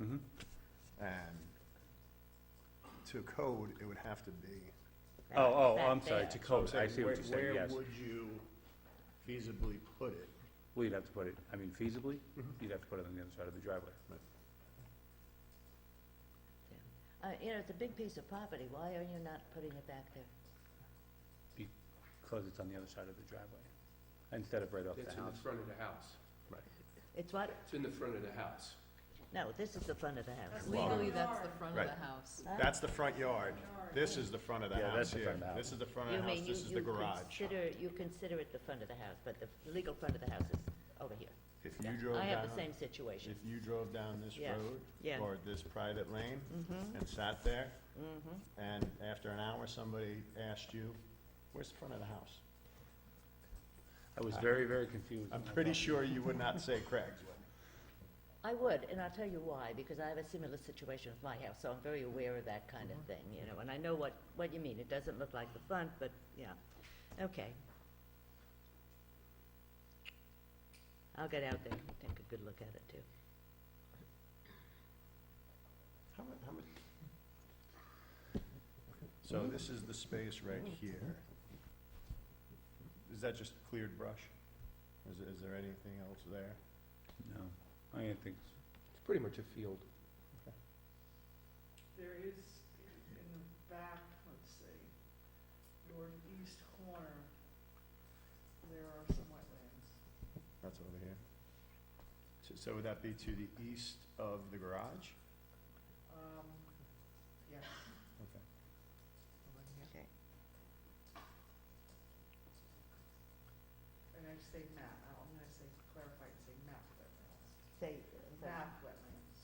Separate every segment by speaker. Speaker 1: Mhm.
Speaker 2: And to code, it would have to be,
Speaker 1: Oh, oh,
Speaker 3: back
Speaker 1: I'm sorry,
Speaker 3: there.
Speaker 1: to code, I see
Speaker 4: Where-
Speaker 1: what you're saying, yes.
Speaker 4: Where would you feasibly put it?
Speaker 1: Well, you'd have to put it, I mean feasibly, you'd have to put it on the other side of the driveway.
Speaker 3: Uh, you know, it's a big piece of property, why are you not putting it back there?
Speaker 1: Because it's on the other side of the driveway, instead of right off
Speaker 5: It's
Speaker 1: the
Speaker 5: in the
Speaker 1: house.
Speaker 5: front of the house.
Speaker 3: It's what,
Speaker 5: It's in the front of the house.
Speaker 3: no, this is the front of the house.
Speaker 6: Legally, that's the front of
Speaker 2: Right.
Speaker 6: the house.
Speaker 3: Huh?
Speaker 2: that's the front yard. This is the front of the
Speaker 1: Yeah,
Speaker 2: house
Speaker 1: that's the
Speaker 2: here.
Speaker 1: front of the
Speaker 2: This
Speaker 1: house.
Speaker 2: is the front
Speaker 3: You
Speaker 2: of the house,
Speaker 3: mean you-
Speaker 2: this is the
Speaker 3: you
Speaker 2: garage.
Speaker 3: Consider, you consider it the front of the house, but the legal front of the house is over here.
Speaker 2: If
Speaker 3: Yeah.
Speaker 2: you drove
Speaker 3: I have the
Speaker 2: down,
Speaker 3: same situation.
Speaker 2: if you drove down this
Speaker 3: Yeah,
Speaker 2: road
Speaker 3: yeah. Mm-hmm.
Speaker 2: or this private lane and sat there, and after an hour, somebody asked you, where's the front of the house?
Speaker 1: I was very, very confused.
Speaker 2: I'm
Speaker 1: when I
Speaker 2: pretty
Speaker 1: thought-
Speaker 2: sure you would not say Craig's Way.
Speaker 3: I would, and I'll tell you why, because I have a similar situation with my house, so I'm very aware of that kind
Speaker 2: Mm-hmm.
Speaker 3: of thing, you know, and I know what, what you mean. It doesn't look like the front, but, yeah, okay. I'll get out there and take a good look at it, too.
Speaker 2: How mu- how much? So this is the space right here. Is that just cleared brush? Is, is there anything else there?
Speaker 1: No, I didn't think so.
Speaker 5: It's pretty much a field.
Speaker 7: There is in the back, let's see, northeast corner, there are some wetlands.
Speaker 2: That's over here. So- So would that be to the east of the garage?
Speaker 7: Um, yes.
Speaker 2: Okay.
Speaker 3: Okay.
Speaker 7: And I say map, I- I'm gonna say clarify and say map wetlands,
Speaker 3: Say,
Speaker 7: map wetlands.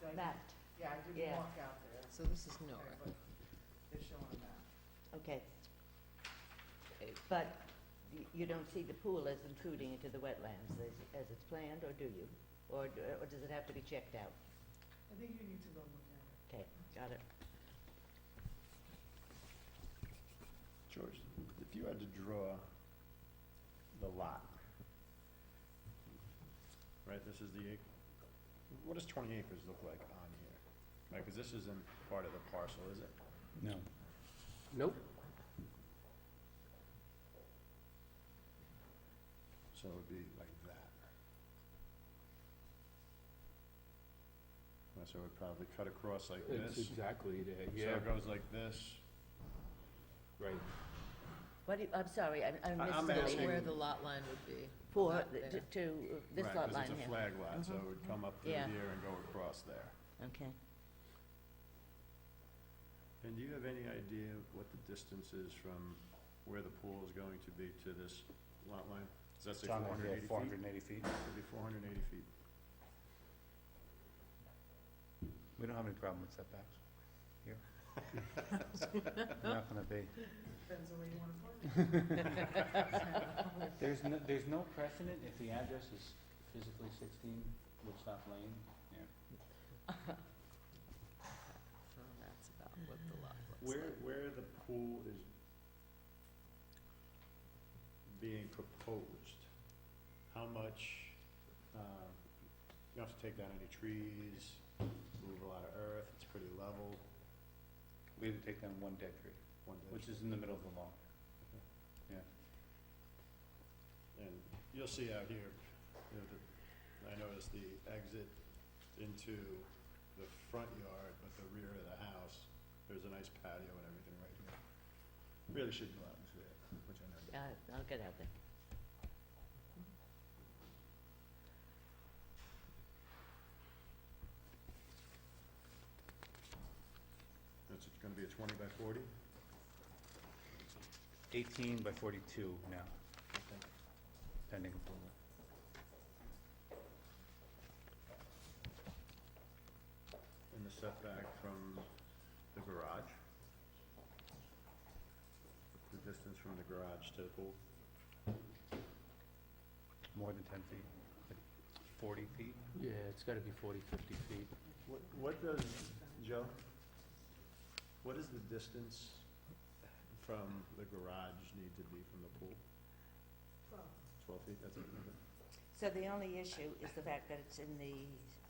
Speaker 7: Did I-
Speaker 3: mapped,
Speaker 7: Yeah, I did
Speaker 3: yeah.
Speaker 7: walk out there,
Speaker 6: So this is
Speaker 7: okay,
Speaker 6: Nora.
Speaker 7: but they're showing a map.
Speaker 3: okay. Uh, But y- you don't see the pool as intruding into the wetlands as, as it's planned, or do you? Or, d- or does it have to be checked out?
Speaker 7: I think you need to go look at it.
Speaker 3: Okay, got it.
Speaker 2: George, if you had to draw the lot, right, this is the, ac- what does twenty acres look like on here? Right, because this isn't part of the parcel, is it?
Speaker 1: No,
Speaker 5: Nope.
Speaker 2: So it would be like that. Well, So it would probably cut across like
Speaker 5: It's
Speaker 2: this.
Speaker 5: exactly there,
Speaker 2: So
Speaker 5: yeah.
Speaker 2: it goes like this.
Speaker 5: Right.
Speaker 3: What do you, I'm sorry, I I
Speaker 2: I- I'm
Speaker 3: missed
Speaker 6: This is
Speaker 2: asking-
Speaker 3: the,
Speaker 6: Where the lot line would be.
Speaker 3: for,
Speaker 6: Not
Speaker 3: to-
Speaker 6: there.
Speaker 3: to, uh, this
Speaker 2: Right,
Speaker 3: lot
Speaker 2: 'cause
Speaker 3: line
Speaker 2: it's a
Speaker 3: here.
Speaker 2: flag lot, so it would come up through
Speaker 3: Yeah.
Speaker 2: here and go across there.
Speaker 3: Okay.
Speaker 2: And do you have any idea what the distance is from where the pool is going to be to this lot line? Is that
Speaker 1: it's
Speaker 2: say
Speaker 1: on
Speaker 2: four hundred eighty feet?
Speaker 1: four hundred and eighty feet.
Speaker 2: It'd be four hundred and eighty feet.
Speaker 1: We don't have any problem with setbacks here. Not gonna be.
Speaker 7: Depends on where you wanna put it.
Speaker 1: There's no, there's no precedent if the address is physically sixteen Woodstock Lane.
Speaker 6: So that's about what the lot looks
Speaker 2: Where, where the pool is being proposed, how much, um, you don't have to take down any trees, move a lot of earth, it's pretty level,
Speaker 1: We had to take down one dead tree,
Speaker 2: one ditch.
Speaker 1: which is in the middle of the lawn.
Speaker 2: And you'll see out here, you know, the, I noticed the exit into the front yard, but the rear of the house, there's a nice patio and everything right here. Really should go out and see it, which I never.
Speaker 3: Uh, I'll get out there.
Speaker 2: It's gonna be a twenty by forty?
Speaker 1: Eighteen by forty-two now, pending approval.
Speaker 2: And the setback from the garage? The distance from the garage to the pool?
Speaker 1: More than ten feet, like forty feet?
Speaker 5: Yeah, it's gotta be forty, fifty feet.
Speaker 2: What, what does, Joe, what is the distance from the garage need to be from the pool?
Speaker 7: Twelve.
Speaker 2: Twelve feet, that's it?
Speaker 3: So the only issue is the fact that it's in the